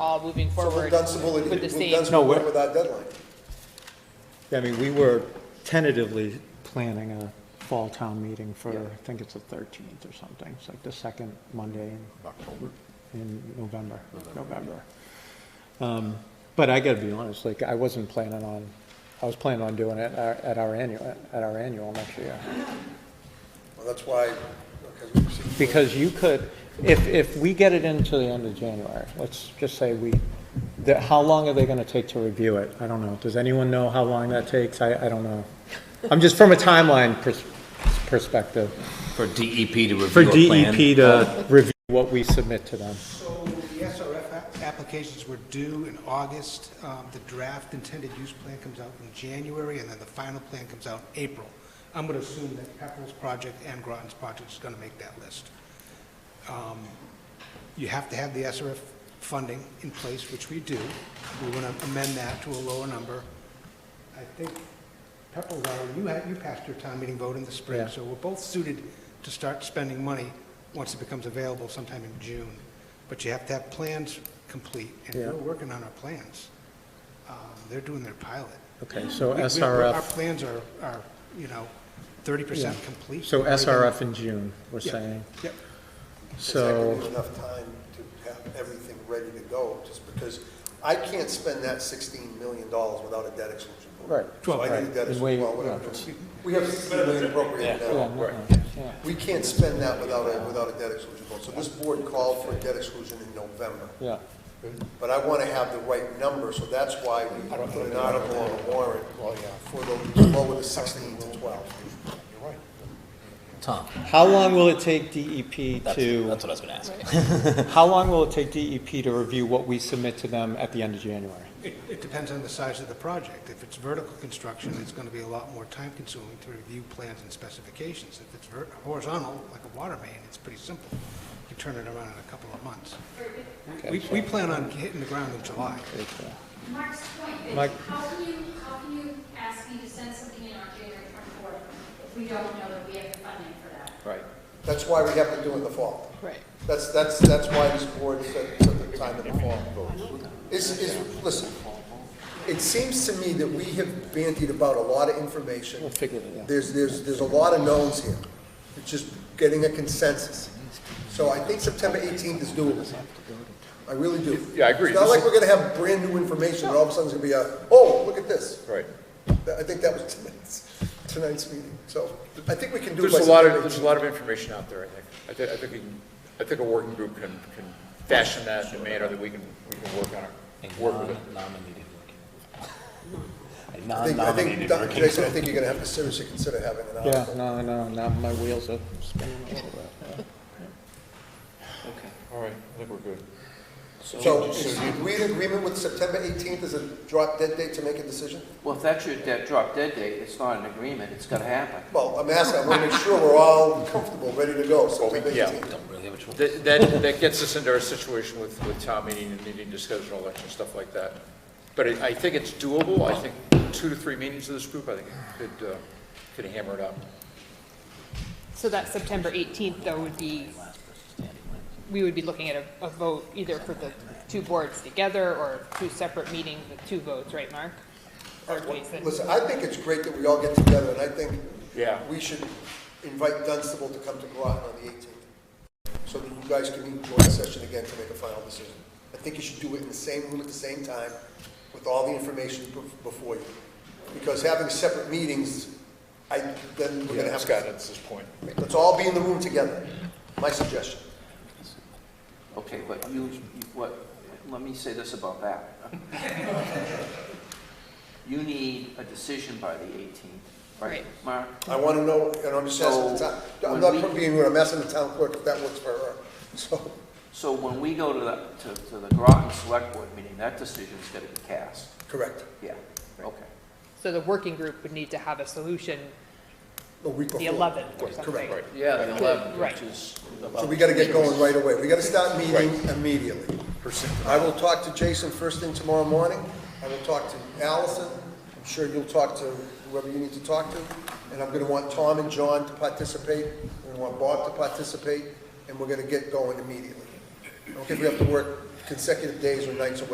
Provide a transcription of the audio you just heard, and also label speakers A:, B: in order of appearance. A: all moving
B: So
A: forward
B: we've done some, we've
A: with the
B: done
A: same.
B: some
C: No, we're-
B: with that deadline.
C: I mean, we were tentatively planning a fall town meeting for, I think it's the 13th or something. It's like the second Monday in
D: October.
C: in November, November. Um, But I gotta be honest, like, I wasn't planning on, I was planning on doing it at our- at our annual, at our annual next year.
B: Well, that's why, okay, we proceed.
C: Because you could, if, if we get it into the end of January, let's just say we, that, how long are they gonna take to review it? I don't know. Does anyone know how long that takes? I, I don't know. I'm just from a timeline pers- perspective.
E: For DEP to review
C: For
E: a plan.
C: DEP to review what we submit to them.
F: So the SRF a- applications were due in August. Um, The draft intended use plan comes out in January, and then the final plan comes out in April. I'm going to assume that Pepperell's project and Groton's project is going to make that list. Um, You have to have the SRF funding in place, which we do. We want to amend that to a lower number. I think Pepperell's already, you had, you passed your town meeting vote in the spring,
C: Yeah.
F: so we're both suited to start spending money once it becomes available sometime in June. But you have to have plans complete, and
C: Yeah.
F: we're working on our plans. Um, They're doing their pilot.
C: Okay, so
F: We- we- Our
C: SRF,
F: plans are, are, you know, thirty percent complete.
C: so
F: We've already done-
C: SRF in June, we're
F: Yeah.
C: saying.
F: Yep.
B: Is that
C: So.
B: gonna be enough time to have everything ready to go, just because I can't spend that sixteen million dollars without a debt exclusion. vote.
C: Right.
B: So I need a
C: Right.
B: debt
C: And
B: exclusion,
C: we-
B: well, whatever. We have sixteen million appropriated
C: Yeah,
B: now.
C: no, no, yeah.
B: We can't spend that without a, without a debt exclusion vote. So this board called for a debt exclusion in November.
C: Yeah,
B: But I want to have the right number, so that's why we put an article on the warrant for the, lower the sixteen to twelve.
E: Tom,
C: how long will it take DEP
E: that's,
C: to,
E: that's what I was gonna ask.
C: how long will it take DEP to review what we submit to them at the end of January?
F: It it depends on the size of the project. If it's vertical construction, it's going to be a lot more time-consuming to review plans and specifications. If it's ver- horizontal, like a water main, it's pretty simple. You turn it around in a couple of months. We, we plan on hitting the ground in July.
G: Mark's point is,
C: Mike.
G: how can you, how can you ask me to send something in on January twenty-fourth if we don't know that we have the funding for that?
E: Right.
B: That's why we have to do it in the fall.
A: Right.
B: That's, that's, that's why this board set, set the time in the fall. Is, is, listen, it seems to me that we have bandied about a lot of information. We'll figure it out. There's, there's, there's a lot of knowns here. It's just getting a consensus. So I think September eighteenth is doable. I really do.
D: Yeah, I agree.
B: It's not like we're gonna have brand-new information, and all of a sudden it's gonna be a, oh, look at this.
D: Right.
B: That- I think that was tonight's, tonight's meeting, so I think we can do it
D: There's
B: by
D: a lot
B: September
D: of, there's a
B: 18th.
D: lot of information out there, I think. I think, I think, we can- I think a working group can, can fashion that in a manner that we can, we can work on it, work with it.
E: Non-nominated working. A
B: I think, I think,
E: non-nominated
B: Dr.
E: working.
B: Jason, I think you're gonna have to seriously consider having an
C: Yeah,
B: article.
C: no, no, now my wheels are spinning a little bit.
D: All right, I think we're good.
B: So, is we in agreement with September eighteenth as a drop dead date to make a decision?
H: Well, if that's your dead, drop dead date, it's not an agreement, it's gonna happen.
B: Well, I'm asking, I wanna make sure we're all comfortable, ready to go, September
D: yeah.
B: eighteenth.
E: Don't really have a choice.
D: That, that, that gets us into our situation with, with town meeting and needing to schedule an election, stuff like that. But I, I think it's doable. I think two to three meetings of this group, I think could, uh, could hammer it out.
A: So that September 18th, though, would be, we would be looking at a, a vote either for the two boards together or two separate meetings with two votes, right, Mark? Or Jason?
B: Listen, I think it's great that we all get together, and I think
D: Yeah.
B: we should invite Dunstable to come to Groton on the eighteenth, so that you guys can meet in joint session again to make a final decision. I think you should do it in the same room at the same time, with all the information bef- before you. Because having separate meetings, I, then we're gonna
D: Yeah,
B: have.
D: Scott, that's his point.
B: Let's all be in the room together, my suggestion.
H: Okay, but you, you- what, let me say this about that. You need a decision by the 18th, right,
A: Right.
H: Mark?
B: I want to know, and I'm just asking the town, I'm
H: So,
B: not
H: when we-
B: being rude, I'm asking the town clerk if that works for her, so.
H: So when we go to the, to, to the Groton Select Board meeting, that decision's gonna be cast,
B: Correct.
H: yeah, okay.
A: So the working group would need to have a solution
B: A week before.
A: the 11th or
B: Correct,
A: something.
B: Correct.
H: Yeah, the 11th,
A: Right.
H: which is
B: So
H: about
B: we got to get going right away. We got to start meeting immediately. I will talk to Jason first thing tomorrow morning. I will talk to Allison. I'm sure you'll talk to whoever you need to talk to. And I'm going to want Tom and John to participate. We're going to want Bob to participate, and we're going to get going immediately. I don't think we have to work consecutive days or nights or